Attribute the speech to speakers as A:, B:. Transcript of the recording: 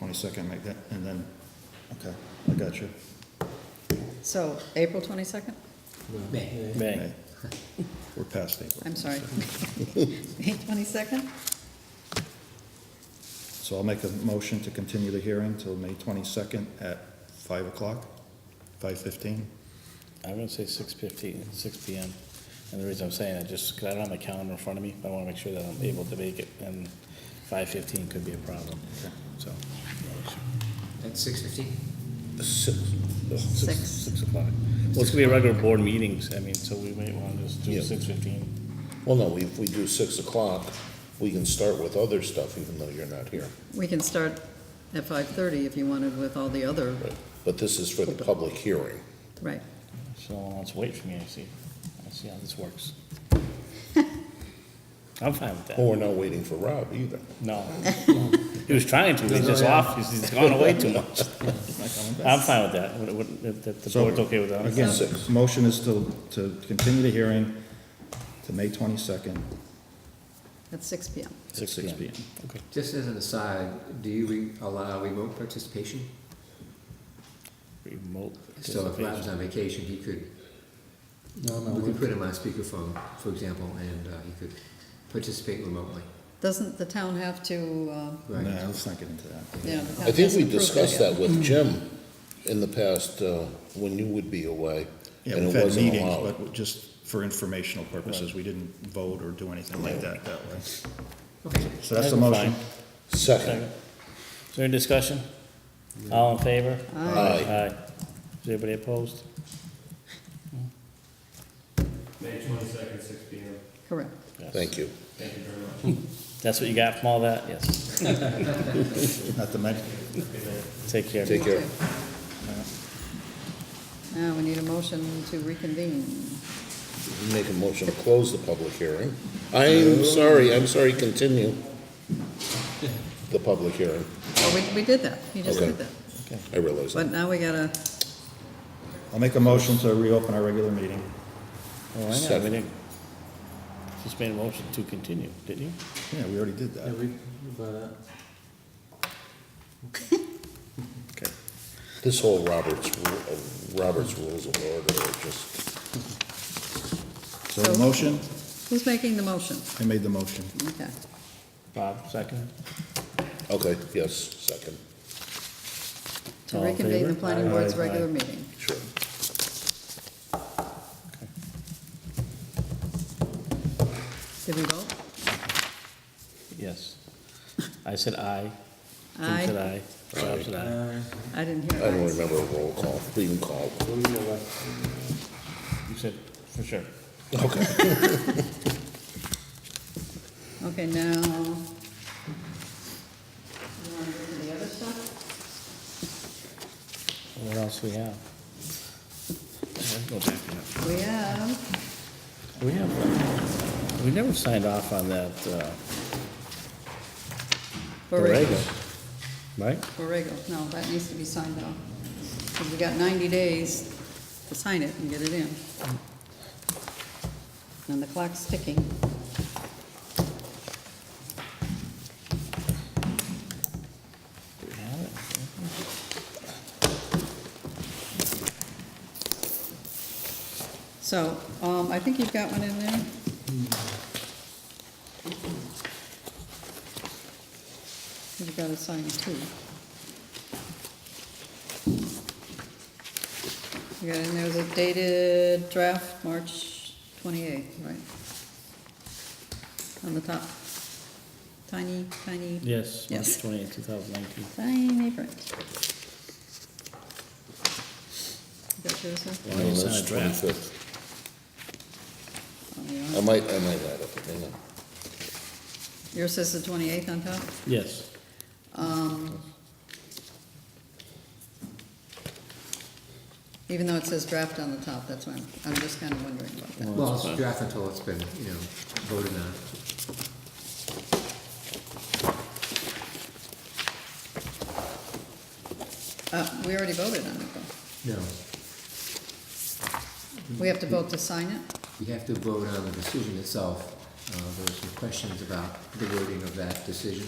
A: 22nd, make that, and then, okay, I got you.
B: So, April 22nd?
C: May.
D: May.
A: May. We're past April.
B: I'm sorry. May 22nd?
A: So I'll make a motion to continue the hearing till May 22nd at 5 o'clock, 5:15.
D: I'm gonna say six fifty, six P M. And the reason I'm saying it, just 'cause I don't have my calendar in front of me, but I wanna make sure that I'm able to make it, and five fifteen could be a problem, so.
C: At six fifteen?
D: Six.
B: Six.
D: Six o'clock. Well, it's gonna be a regular board meetings, I mean, so we might wanna just do
E: Yeah.
D: six fifteen.
E: Well, no, if we do six o'clock, we can start with other stuff even though you're not here.
B: We can start at 5:30 if you wanted with all the other,
E: But this is for the public hearing.
B: right.
D: So I'll have to wait for me, I see. I see how this works. I'm fine with
E: Well,
D: that.
E: we're not waiting for Rob either.
D: No. He was trying to, he's just off, he's, he's gone away too much. I'm fine with that, Would- would- if, if the
A: So,
D: board's okay with that. I'm fine.
A: Again,
E: Six.
A: motion is to, to continue the hearing to May 22nd
B: At six PM.
A: at
D: 6
A: 6
D: p.m.
A: PM.
D: Okay.
C: Just as an aside, do you re- allow remote participation?
D: Remote
C: So if Rob's
D: participation.
C: on vacation, he could,
F: No, no,
C: we
F: we-
C: could put him on speakerphone, for example, and uh, he could participate remotely.
B: Doesn't the town have to, uh,
A: No,
C: Right.
A: let's not get into that.
B: you know, the town
E: I think we
B: hasn't approved
E: discussed
B: yet.
E: that with Jim in the past, uh, when you would be away.
A: Yeah,
E: and
A: we've
E: it
A: had
E: wasn't
A: meetings,
E: allowed.
A: but just for informational purposes, we didn't vote or do anything like that that way.
C: Okay.
A: So that's the
D: I'm
A: motion.
D: fine.
E: Second,
D: Second. Is there any discussion? All in favor?
E: Aye.
D: Aye. Is anybody opposed?
G: May twenty-second, six P M.
B: Correct.
D: Yes.
E: thank you.
G: Thank you very much.
D: That's what you got from all that? Yes.
A: Not to mention,
D: Take care.
E: Take care.
B: Now, we need a motion to reconvene.
E: Make a motion to close the public hearing. I'm sorry, I'm sorry, continue the public hearing.
B: Oh, we, we did that. You just
E: Okay.
B: did that.
E: I realize that.
B: But now we gotta,
A: I'll make a motion to reopen our regular meeting.
D: Oh, I know, we
E: Second.
D: didn't. Just made a motion to continue, didn't you?
A: Yeah, we already did
F: yeah,
A: that.
F: we, but, uh,
D: Okay.
E: This whole Robert's, Ru- uh, Robert's Rules of Order are just,
A: So the motion,
B: who's making the motion?
A: I made the motion.
B: Okay.
D: Bob, second.
E: okay, yes, second,
B: To
D: All in
B: reconvene the
D: favor?
B: planning
D: Aye.
B: board's
D: Aye.
B: regular meeting.
E: sure.
B: Did we vote?
D: Yes. I said aye. Jim said
B: Aye.
D: aye. Bob said aye.
F: uh,
B: I didn't
E: I
B: hear
E: don't
B: ayes.
E: remember a roll call, we didn't call.
F: we know what.
D: You said, for sure.
B: Okay, now. You wanna go to the other stuff?
D: What else we have? Go back to that.
B: We have,
D: We have, we never signed off on that, uh,
B: Borrego.
D: Borrego, right?
B: Borrego, no, that needs to be signed off. 'Cause we got ninety days to sign it and get it in. And the clock's ticking.
D: Do we have it?
B: So, um, I think you've got one in there. You've got to sign two. You got in there the dated draft, March twenty-eighth, right? On the top. Tiny, tiny,
D: Yes, March
B: Yes.
D: twenty-eighth, two thousand nineteen.
B: tiny print. You got yours, sir?
D: Why you
E: No,
D: sign
E: that's
D: a draft?
E: 25th.
B: Oh, you
E: I
B: are.
E: might, I might add it, hang on.
B: Yours says the twenty-eighth on top?
D: Yes.
B: Even though it says draft on the top, that's why I'm, I'm just kind of wondering about that.
C: Well, it's draft until it's been, you know, voted on.
B: Uh, we already voted on it though.
C: No,
B: We have to vote to sign it?
C: you have to vote on the decision itself. Uh, There's some questions about the wording of that decision.